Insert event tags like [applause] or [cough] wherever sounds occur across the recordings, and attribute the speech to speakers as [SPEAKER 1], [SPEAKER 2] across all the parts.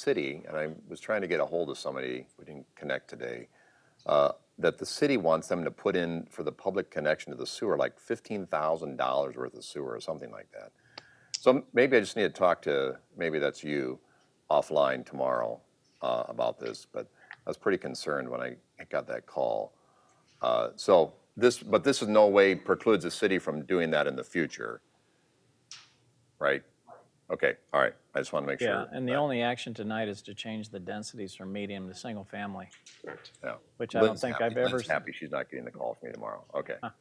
[SPEAKER 1] city, and I was trying to get a hold of somebody, we didn't connect today, uh, that the city wants them to put in for the public connection to the sewer, like $15,000 worth of sewer or something like that. So maybe I just need to talk to, maybe that's you offline tomorrow uh, about this, but I was pretty concerned when I got that call. Uh, So this, but this in no way precludes the city from doing that in the future, right? Okay, all right, I just want to make sure.
[SPEAKER 2] Yeah, and the
[SPEAKER 1] that-
[SPEAKER 2] only action tonight is to change the densities from medium to single family,
[SPEAKER 1] Yeah.
[SPEAKER 2] which I don't
[SPEAKER 1] Lynn's
[SPEAKER 2] think
[SPEAKER 1] happy-
[SPEAKER 2] I've ever.
[SPEAKER 1] Lynn's happy she's not getting the call from me tomorrow.
[SPEAKER 2] [laughs]
[SPEAKER 1] Okay.
[SPEAKER 3] And-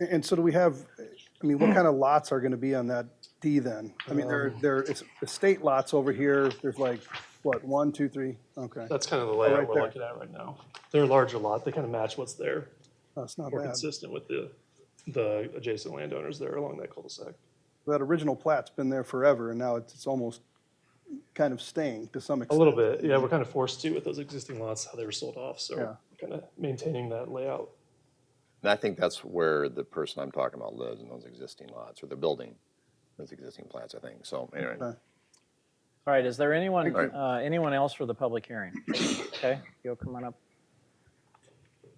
[SPEAKER 3] And so do we have, I mean, what kind of lots are gonna be on that D then? I mean, there,
[SPEAKER 4] Um,
[SPEAKER 3] there, it's estate lots over here, there's like, what, one, two, three? Okay,
[SPEAKER 4] That's kind of the layout
[SPEAKER 3] right
[SPEAKER 4] we're
[SPEAKER 3] there.
[SPEAKER 4] looking at right now. They're a larger lot, they kind of match what's there.
[SPEAKER 3] that's not
[SPEAKER 4] We're
[SPEAKER 3] bad.
[SPEAKER 4] consistent with the, the adjacent landowners there along that cul-de-sac.
[SPEAKER 3] That original plat's been there forever and now it's, it's almost kind of staying to some
[SPEAKER 4] A
[SPEAKER 3] extent.
[SPEAKER 4] little bit, yeah, we're kind of forced to with those existing lots, how they were sold off,
[SPEAKER 3] Yeah.
[SPEAKER 4] so kind of maintaining that layout.
[SPEAKER 1] And I think that's where the person I'm talking about lives in those existing lots or the building, those existing plants, I think. So anyway,
[SPEAKER 3] Okay.
[SPEAKER 2] All right, is there anyone,
[SPEAKER 1] Right.
[SPEAKER 2] uh, anyone else for the public hearing? Okay, you'll come on up.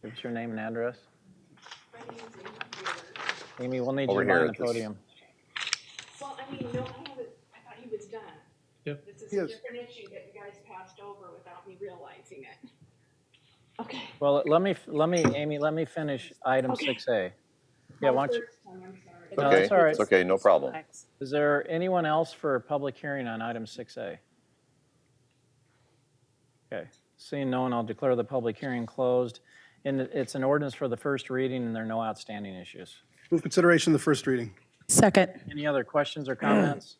[SPEAKER 2] Give us your name and address.
[SPEAKER 5] My name's Amy Taylor.
[SPEAKER 2] Amy, we'll need you
[SPEAKER 1] Over
[SPEAKER 2] on
[SPEAKER 1] here
[SPEAKER 2] the
[SPEAKER 1] at this-
[SPEAKER 2] podium.
[SPEAKER 5] Well, I mean, no, I haven't, I thought he was done.
[SPEAKER 4] Yeah.
[SPEAKER 5] This is
[SPEAKER 3] He
[SPEAKER 5] a
[SPEAKER 3] is.
[SPEAKER 5] different issue that you guys passed over without me realizing it. Okay.
[SPEAKER 2] Well, let me, let me, Amy, let me finish item
[SPEAKER 5] Okay.
[SPEAKER 2] six A. Yeah, why don't you, No,
[SPEAKER 1] okay,
[SPEAKER 2] that's all right.
[SPEAKER 1] it's okay, no problem.
[SPEAKER 2] is there anyone else for a public hearing on item six A? Okay, seeing no one, I'll declare the public hearing closed. And it's an ordinance for the first reading and there are no outstanding issues.
[SPEAKER 3] Move consideration of the first reading.
[SPEAKER 6] Second.
[SPEAKER 2] Any other questions or comments?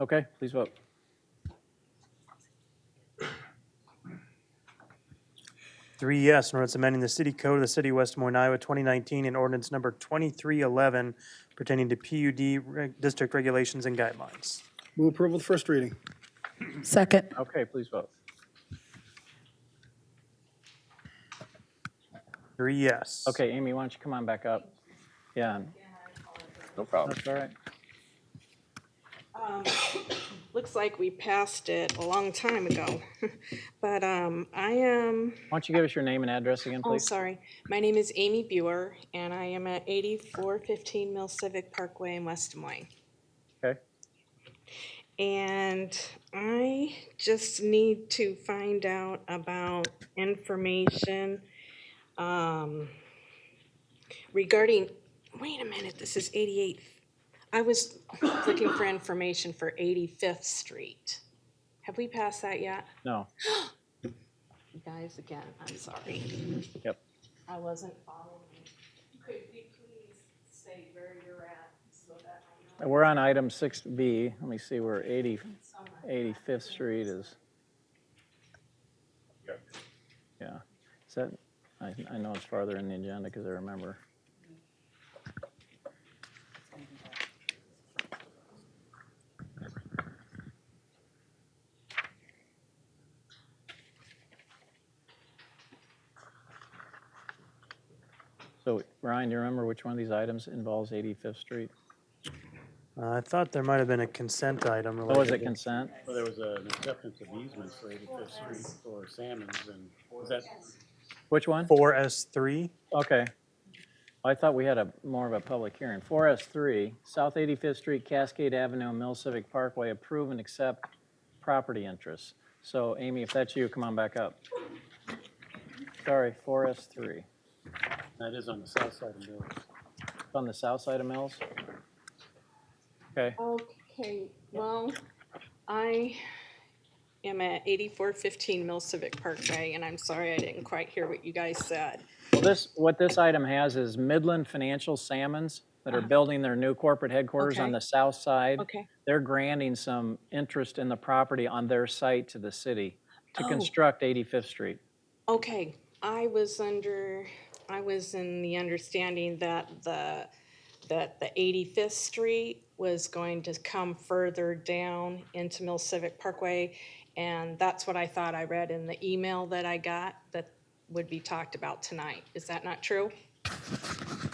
[SPEAKER 2] Okay, please vote.
[SPEAKER 7] Three yes, an ordinance amending the city code of the city of West Des Moines, Iowa, 2019, and ordinance number 2311 pertaining to PUD reg- district regulations and guidelines.
[SPEAKER 3] Move approval of the first reading.
[SPEAKER 6] Second.
[SPEAKER 2] Okay, please vote.
[SPEAKER 7] Three E yes.
[SPEAKER 2] Okay, Amy, why don't you come on back up? Yeah,
[SPEAKER 1] No problem.
[SPEAKER 2] that's all right.
[SPEAKER 5] Looks like we passed it a long time ago, [laughs] but, um, I am,
[SPEAKER 2] Why don't you give us your name and address again,
[SPEAKER 5] oh,
[SPEAKER 2] please?
[SPEAKER 5] sorry. My name is Amy Buer, and I am at eighty-four fifteen Mill Civic Parkway in West Des Moines.
[SPEAKER 2] Okay,
[SPEAKER 5] And I just need to find out about information um, regarding, wait a minute, this is 88th. I was looking for information for 85th Street. Have we passed that yet?
[SPEAKER 2] no,
[SPEAKER 5] You guys, again, I'm sorry.
[SPEAKER 2] yep.
[SPEAKER 5] I wasn't following. Could you please say where you're at so that I know?
[SPEAKER 2] We're on item 6B. Let me see where 80,
[SPEAKER 5] So much.
[SPEAKER 2] 85th Street is. Yeah, is that, I, I know it's farther in the agenda because I remember. So Ryan, do you remember which one of these items involves 85th Street?
[SPEAKER 7] Uh, I thought there might have been a consent item
[SPEAKER 2] Oh, was
[SPEAKER 7] related.
[SPEAKER 2] it consent?
[SPEAKER 8] Well, there was an acceptance of easement for 85th Street for Salmons, and was that,
[SPEAKER 2] Which one?
[SPEAKER 7] 4S3?
[SPEAKER 2] Okay. I thought we had a, more of a public hearing. 4S3, South 85th Street, Cascade Avenue, Mill Civic Parkway, approve and accept property interests. So Amy, if that's you, come on back up. Sorry, 4S3.
[SPEAKER 8] that is on the south side of Mills.
[SPEAKER 2] It's on the south side of Mills? Okay,
[SPEAKER 5] Okay, well, I am at eighty-four fifteen Mill Civic Parkway, and I'm sorry I didn't quite hear what you guys said.
[SPEAKER 2] well, this, what this item has is Midland Financial Salmons that are building their new corporate headquarters on
[SPEAKER 5] Ah. Okay.
[SPEAKER 2] the south side.
[SPEAKER 5] Okay,
[SPEAKER 2] They're granting some interest in the property on their site to the city to
[SPEAKER 5] Oh.
[SPEAKER 2] construct 85th Street.
[SPEAKER 5] okay, I was under, I was in the understanding that the, that the eighty-fifth street was going to come further down into Mill Civic Parkway, and that's what I thought I read in the email that I got that would be talked about tonight. Is that not true?